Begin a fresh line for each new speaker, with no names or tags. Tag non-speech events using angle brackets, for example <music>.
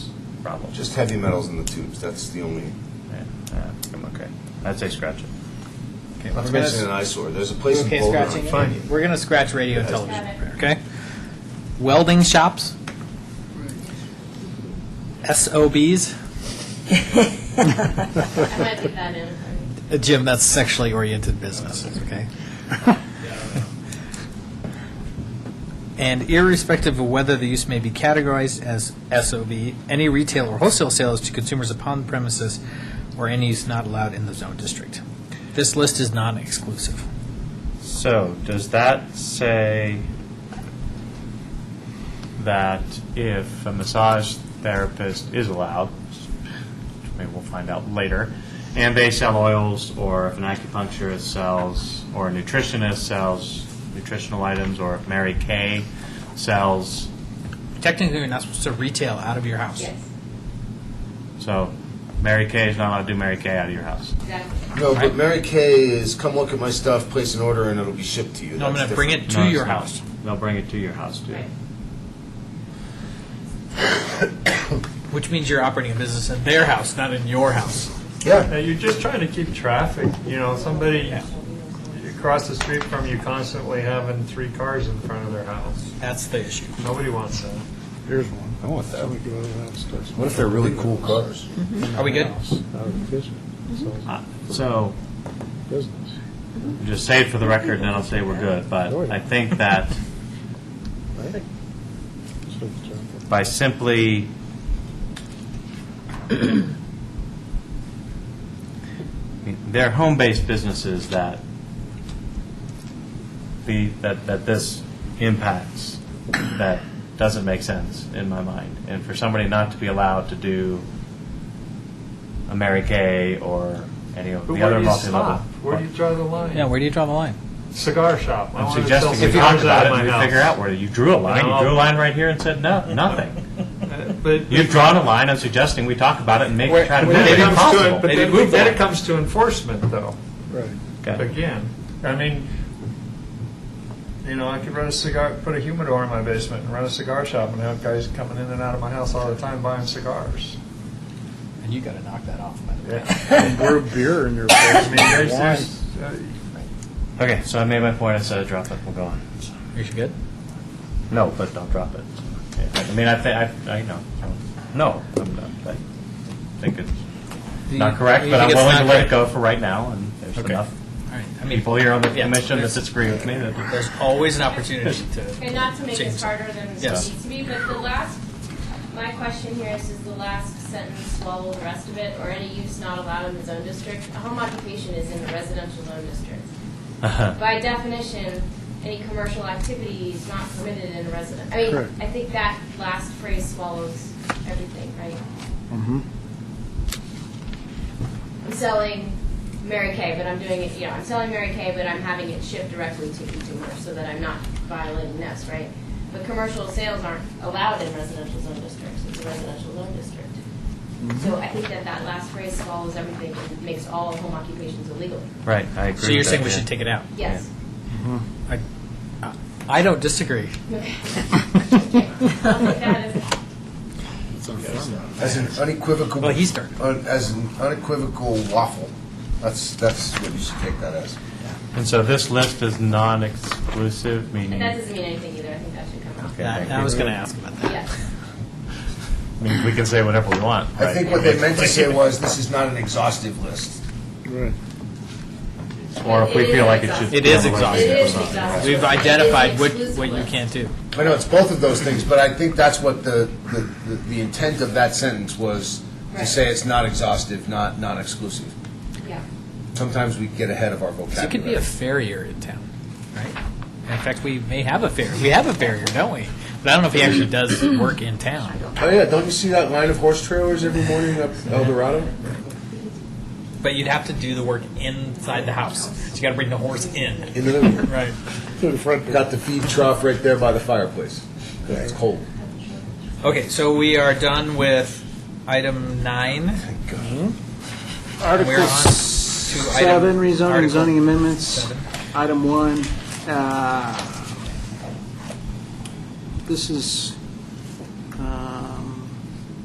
problem.
Just heavy metals in the tubes, that's the only,
Yeah, yeah, I'm okay. I'd say scratch it.
Okay,
not
we're
to
gonna-
mention an eyesore, there's a
you
place in
okay
Boulder.
scratching it?
Fine.
We're gonna scratch radio and
Yes.
television repair, okay? Welding shops? SOBs?
I might leave that in.
Uh, Jim, that's sexually oriented businesses, okay? And irrespective of whether the use may be categorized as SOB, any retail or wholesale sales to consumers upon the premises or any use not allowed in the zone district. This list is non-exclusive.
So, does that say that if a massage therapist is allowed, which maybe we'll find out later, and they sell oils, or if an acupuncturist sells, or a nutritionist sells nutritional items, or if Mary Kay sells,
Technically, you're not supposed to retail out of your house.
Yes,
so Mary Kay is not allowed to do Mary Kay out of your house.
exactly.
No, but Mary Kay is, come look at my stuff, place an order, and it'll be shipped to you.
No, I'm
That's
gonna bring
different.
it to
No, it's
your
not.
house.
They'll bring it to your house, too.
Right.
Which means you're operating a business in their house, not in your house.
Yeah,
Now, Uh, you're just trying to keep traffic, you know, somebody across the street from you constantly having three cars in front of their house.
That's the issue.
Nobody wants that.
Here's one.
I want that.
We go to that stuff.
what if they're really cool cars?
Are we good?
Out of business. So,
Uh, So,
Mm-hmm.
Business.
Just say it for the record, and then I'll say we're good, but I think that
right? So it's, uh,
by simply I mean, they're home-based businesses that the, that, that this impacts, that doesn't make sense in my mind. And for somebody not to be allowed to do a Mary Kay or any of the
But where
other
do you
multi-level.
stop? Where do you draw the line?
Yeah, where do you draw the line?
Cigar shop. I
I'm
wanna sell
suggesting we
cigars
talk about
out
it
of
and we
my
figure
house.
out where, you drew a line, you
No.
drew a line right here and said, no,
<laughs>
nothing.
Uh, But
You've drawn a line, I'm suggesting we talk about it and make,
Where-
try to
but then
make
it
it
comes to it-
impossible.
But
Maybe
then-
move
then
the
it comes to enforcement, though.
Right.
Okay.
again. I mean, you know, I could run a cigar, put a humidor in my basement and run a cigar shop and have guys coming in and out of my house all the time buying cigars.
And you got to knock that off, by the way.
<laughs>
Yeah.
And brew beer in your
I mean, there's,
place. Wine.
there's, uh,
Okay, so I made my point, I said drop it, we'll go on.
You good?
No, but don't drop it. I mean, I think, I, I know, no, I'm not, I think it's not correct, but I'm willing to let it go for right now, and there's
Okay.
enough
All right, I mean,
people here on the
Yeah.
commission that disagree with me that.
there's always an
<laughs>
opportunity to.
And not to make
Change.
this harder than it
Yes.
needs to be, but the last, my question here is, is the last sentence swallow the rest of it, or any use not allowed in the zone district? A home occupation is in the residential zone district. By definition, any commercial activity is not permitted in a resident. I mean,
Correct.
I think that last phrase swallows everything, right?
Mm-hmm.
I'm selling Mary Kay, but I'm doing it, you know, I'm selling Mary Kay, but I'm having it shipped directly to consumers so that I'm not violating this, right? But commercial sales aren't allowed in residential zone districts, it's a residential zone district. So I think that that last phrase swallows everything and makes all home occupations illegal.
Right, I agree
So you're saying we should take it out?
Yes.
I, I don't <laughs> disagree.
Okay. I'll take that as-
As an unequivocal.
Well, he started.
un- As an unequivocal waffle, that's, that's what you should take that as.
And so this list is non-exclusive, meaning,
That doesn't mean anything either, I think that should come out.
Okay.
I
thank
I
you.
was going to ask about that.
Yes.
means we can say whatever we want, right?
I think what they meant to say was, this is not an exhaustive list.
Right.
Or if we
It is
feel like it should.
exhaustive.
It is
Yeah,
exhaustive.
It is exhaustive.
We've
It is
identified what,
exclusive
what you
list.
can't do.
I know it's both of those things, but I think that's what the, the, the- the intent of that sentence was, to
Right.
say it's not exhaustive, not, not exclusive.
Yeah.
Sometimes we get ahead of our
So
vocabulary.
it could be a farrier in town, right? In fact, we may have a farrier. We have a farrier, don't we? But I don't know if he actually does work in town.
Oh, yeah, don't you see that line of horse trailers every morning up El Dorado?
But you'd have to do the work inside the house. You got to bring the horse in.
In the living room.
Right.
To the front door.
Got the feed trough right there by the fireplace, 'cause it's cold.
Okay, so we are done with item nine.
Article
We're on to
seven,
item-
rezoning,
Article
zoning amendments,
seven.
item one. uh, This is
um,